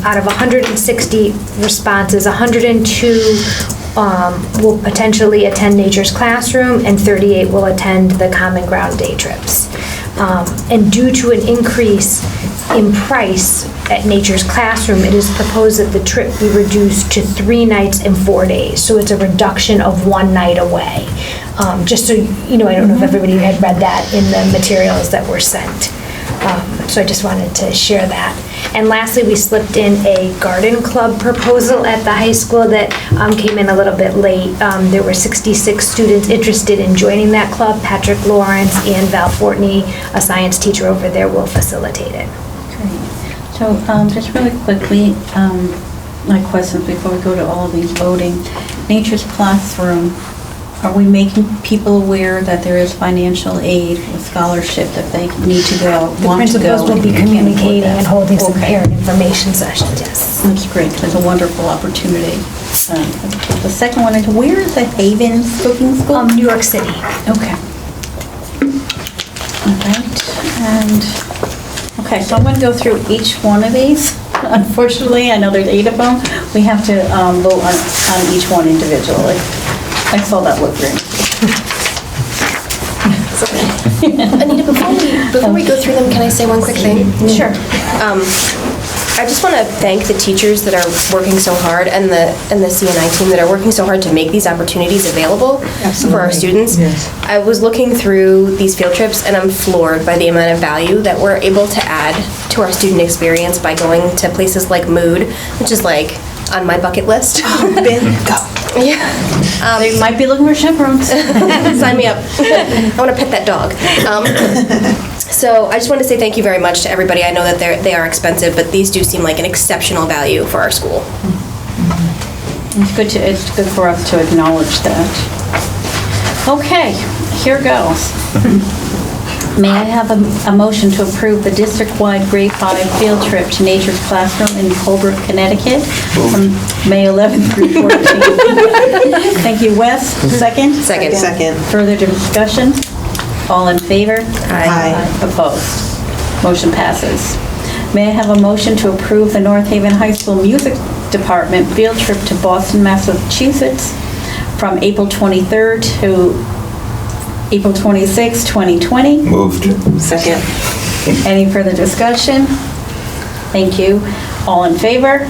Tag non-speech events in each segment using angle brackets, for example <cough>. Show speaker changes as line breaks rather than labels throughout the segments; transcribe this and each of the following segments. out of 160 responses, 102 um, will potentially attend Nature's Classroom, and 38 will attend the Common Ground Day Trips. Um, And due to an increase in price at Nature's Classroom, it is proposed that the trip be reduced to three nights and four days. So it's a reduction of one night away. Um, Just so, you know, I don't know if everybody had read that in the materials that were sent. Um, So I just wanted to share that. And lastly, we slipped in a garden club proposal at the high school that um, came in a little bit late. Um, There were 66 students interested in joining that club. Patrick Lawrence and Val Fortney, a science teacher over there, will facilitate it.
Great. So um, just really quickly, um, my questions before we go to all of these voting. Nature's Classroom, are we making people aware that there is financial aid with scholarship that they need to go,
The
want to go?
principals will be
and can afford
communicating
that?
and holding some
Okay.
parent information sessions, yes.
That's great, that's a wonderful opportunity. Um, The second one is, where is the Haven Cooking School?
Um, New York City.
Okay. All right, and, okay, so I'm going to go through each one of these. <laughs> Unfortunately, I know there's eight of them. We have to um, vote on, on each one individually. I saw that look green.
Anita, before we, before we go through them, can I say one quick thing? Sure. Um, I just want to thank the teachers that are working so hard and the, and the CNI team that are working so hard to make these opportunities available for our students. I was looking through these field trips and I'm floored by the amount of value that we're able to add to our student experience by going to places like Mood, which is like on my bucket list. <laughs> Yeah.
They might be looking for chaperones. <laughs>
<laughs> Sign me up. I want to pet that dog. Um, so I just want to say thank you very much to everybody. I know that they're, they are expensive, but these do seem like an exceptional value for our school.
It's good to, it's good for us to acknowledge that. Okay, here goes. May I have a, a motion to approve the district-wide grade five field trip to Nature's Classroom in Holbrook, Connecticut from May 11th through 14th? Thank you, Wes. Second?
Second.
Second.
Further discussion? All in favor?
Aye.
Opposed? Motion passes. May I have a motion to approve the North Haven High School Music Department field trip to Boston, Massachusetts from April 23rd to April 26th, 2020?
Moved.
Second.
Any further discussion? Thank you. All in favor?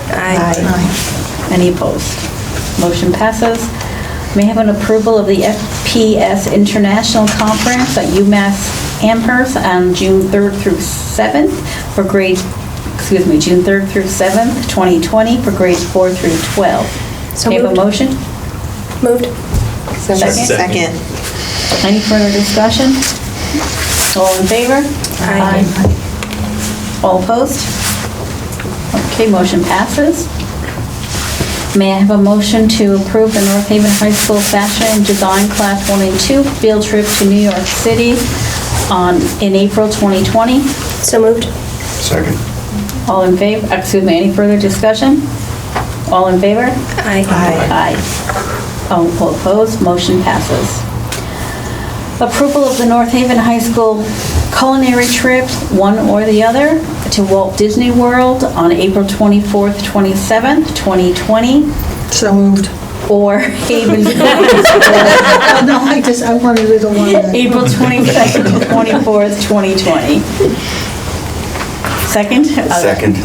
Any opposed? Motion passes. May I have an approval of the FPS International Conference at UMass Amherst on June 3rd through 7th for grades, excuse me, June 3rd through 7th, 2020, for grades 4 through 12.
So
May I have a
moved.
motion?
Moved?
Second.
Any further discussion? All in favor?
Aye.
All opposed? Okay, motion passes. May I have a motion to approve the North Haven High School Fashion and Design Class 1 and 2 field trip to New York City on, in April 2020?
So moved?
Second.
All in favor, excuse me, any further discussion? All in favor?
Aye.
Aye. All opposed, motion passes. Approval of the North Haven High School culinary trip, one or the other, to Walt Disney World on April 24th, 27th, 2020,
So moved.
or <laughs> Haven Village,
Oh, No, I just, I wanted it on one.
April 22nd to 24th, 2020. Second? Uh,
Second.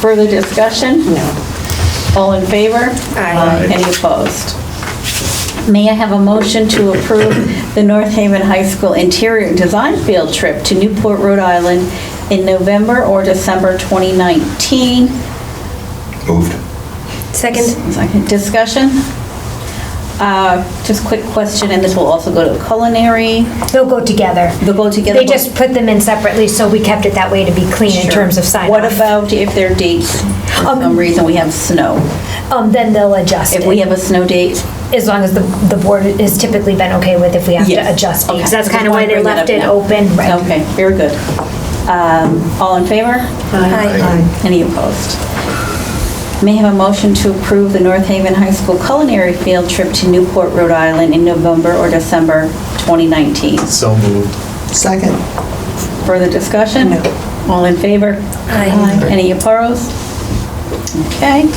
Further discussion?
No.
All in favor?
Aye.
Any opposed? May I have a motion to approve the North Haven High School Interior Design Field Trip to Newport, Rhode Island in November or December 2019?
Moved.
Second?
Second Discussion? Uh, Just quick question, and this will also go to culinary.
They'll go together.
They'll go together,
They
but-
just put them in separately, so we kept it that way to be clean in terms of sign off.
What about if there are dates? For some reason, we have snow.
Um, Then they'll adjust it.
If we have a snow date,
as long as the, the board has typically been okay with if we have to
Yes.
adjust
Okay.
dates. That's kind of
Just
why
wanted to
they
bring that
left
up
it
now.
open, right?
Okay, very good. Um, All in favor?
Aye.
Any opposed? May I have a motion to approve the North Haven High School culinary field trip to Newport, Rhode Island in November or December 2019?
So moved.
Second.
Further discussion?
No.
All in favor?
Aye.
Any opposed? Okay.